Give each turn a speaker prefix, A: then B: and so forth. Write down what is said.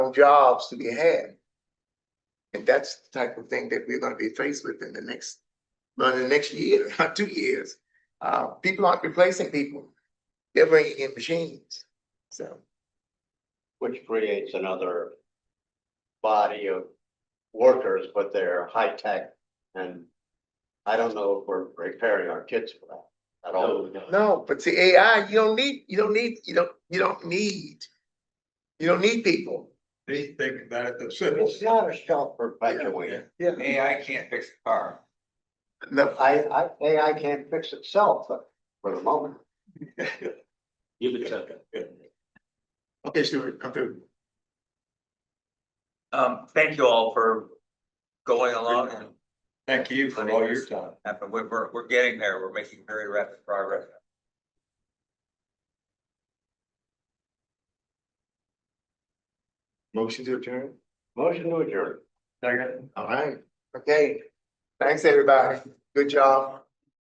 A: more jobs to be had. And that's the type of thing that we're gonna be faced with in the next, well, in the next year, two years. Uh, people aren't replacing people. They're bringing in machines, so.
B: which creates another body of workers, but they're high tech and I don't know if we're preparing our kids for that at all.
A: No, but see, AI, you don't need, you don't need, you don't, you don't need. You don't need people.
C: They think about it themselves.
B: It's not a self perpetuating.
A: Yeah.
D: AI can't fix the car.
A: No,
B: I, I, AI can't fix itself for the moment.
E: Give it to.
A: okay, sure, I'm through.
E: Um, thank you all for going along and,
C: Thank you for all your time.
E: and we're, we're, we're getting there. We're making very rapid progress.
A: Motion to adjourn?
B: Motion to adjourn.
A: All right, okay. Thanks, everybody. Good job.